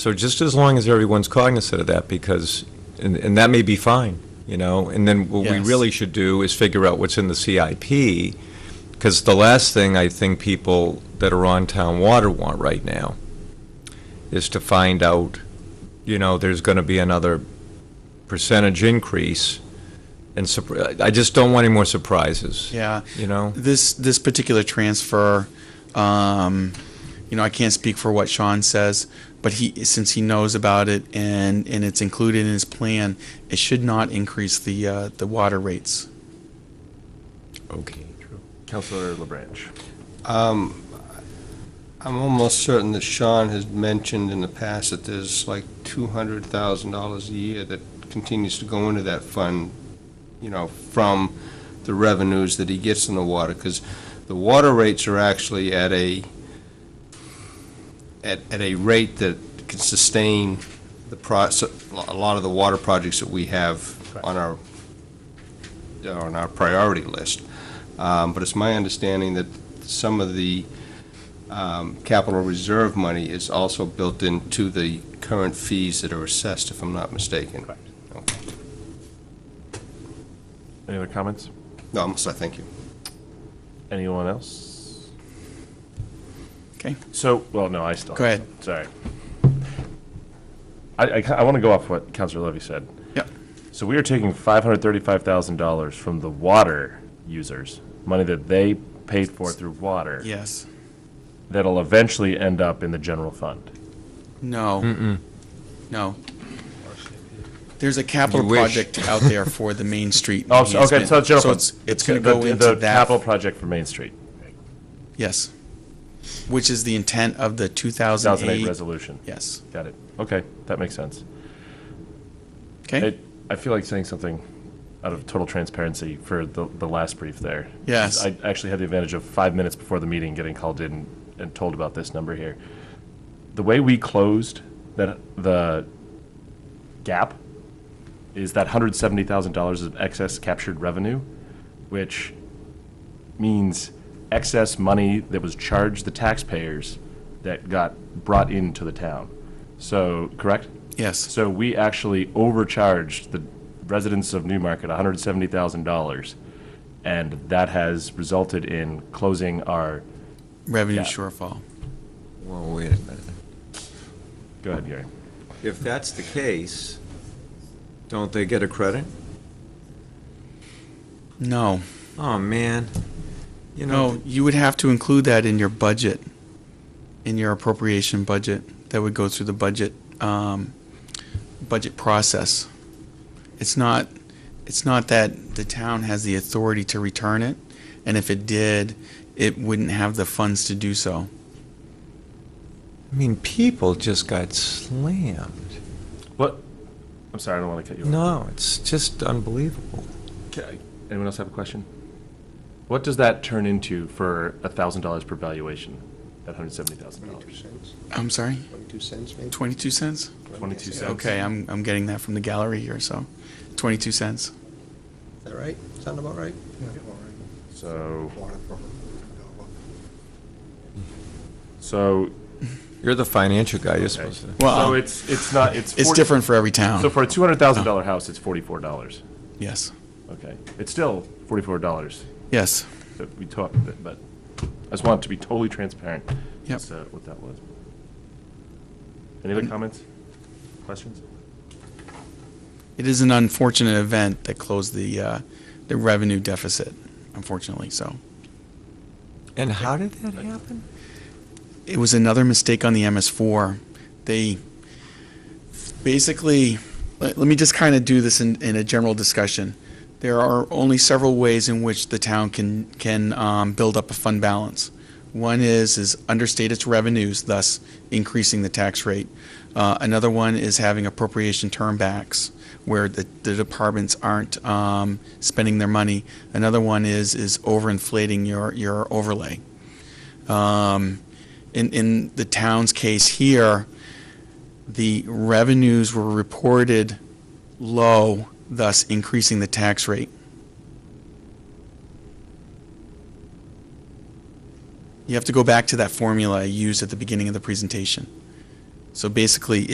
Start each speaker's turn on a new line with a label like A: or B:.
A: So just as long as everyone's cognizant of that, because, and, and that may be fine, you know, and then what we
B: Yes.
A: really should do is figure out what's in the CIP, because the last thing I think people that are on town water want right now is to find out, you know, there's gonna be another percentage increase, and surpri- I I just don't want any more surprises,
B: Yeah.
A: you know?
B: This, this particular transfer, um, you know, I can't speak for what Sean says, but he, since he knows about it and, and it's included in his plan, it should not increase the, uh, the water rates.
A: Okay, true.
C: Councilor LaBranche.
D: Um, I'm almost certain that Sean has mentioned in the past that there's like two hundred thousand dollars a year that continues to go into that fund, you know, from the revenues that he gets in the water, because the water rates are actually at a, at, at a rate that can sustain the process, a lot of the water projects that we have on our, on our priority list. Um, but it's my understanding that some of the, um, capital reserve money is also built into the current fees that are assessed, if I'm not mistaken.
C: Correct.
D: Okay.
C: Any other comments?
D: No, I'm sorry, thank you.
C: Anyone else?
B: Okay.
C: So, well, no, I still.
B: Go ahead.
C: Sorry. I, I, want to go off what Councilor Levy said.
B: Yep.
C: So we are taking five hundred thirty-five thousand dollars from the water users, money that they paid for through water.
B: Yes.
C: That'll eventually end up in the general fund.
B: No. No. There's a
A: You
B: capital
A: wish.
B: project out there for the Main Street.
C: Oh, so- okay,
B: enhancement.
C: so it's general fund.
B: it's, it's gonna
C: The-
B: go
C: the-
B: into
C: The capital
B: that,
C: project for Main Street,
B: yes. Which is the intent of the two
C: two
B: thousand
C: thousand eight
B: eight,
C: resolution.
B: yes,
C: Got it. Okay, that makes sense.
B: okay?
C: It, I feel like saying something out of total transparency for the, the last brief there.
B: Yes.
C: I actually had the advantage of five minutes before the meeting getting called in and told about this number here. The way we closed that, the gap is that hundred seventy thousand dollars of excess captured revenue, which means excess money that was charged the taxpayers that got brought into the town. So, correct?
B: Yes,
C: So we actually overcharged the residents of Newmarket $170,000, and that has resulted in closing our,
B: revenue
C: Yeah.
B: shortfall.
A: Well, wait a minute.
C: go ahead, Gary.
A: If that's the case, don't they get a credit?
B: No,
A: Oh, man. You know,
B: no, you would have to include that in your budget, in your appropriation budget, that would go through the budget, um, budget process. It's not, it's not that the town has the authority to return it, and if it did, it wouldn't have the funds to do so.
A: I mean, people just got slammed.
C: What? I'm sorry, I don't want to cut you off.
A: No, it's just unbelievable.
C: Okay. Anyone else have a question? What does that turn into for $1,000 per valuation, that $170,000?
D: cents,
B: I'm sorry,
D: twenty-two cents maybe?
B: twenty-two cents?
C: 22 cents.
B: Okay, I'm, I'm getting that from the gallery here, so, twenty-two cents.
D: Is that right? Sound about right?
C: So, so,
A: You're the financial guy, you're supposed to.
C: so
B: Well,
C: it's, it's not, it's.
B: it's
C: 40
B: different for every town,
C: So for a $200,000 house, it's $44.
B: yes,
C: Okay. It's still $44.
B: yes.
C: that we talked, but- but I just wanted to be totally transparent.
B: Yep.
C: as to What that was. Any other comments? Questions?
B: It is an unfortunate event that closed the, uh, the revenue deficit, unfortunately, so.
A: And how did that happen?
B: It was another mistake on the MS4. They basically, let, let me just kind of do this in, in a general discussion. There are only several ways in which the town can, can, um, build up a fund balance. One is, is understate its revenues, thus increasing the tax rate. Uh, another one is having appropriation turn backs, where the, the departments aren't, um, spending their money. Another one is, is overinflating your, your overlay. Um, in, in the town's case here, the revenues were reported low, thus increasing the tax rate. You have to go back to that formula I used at the beginning of the presentation. So basically,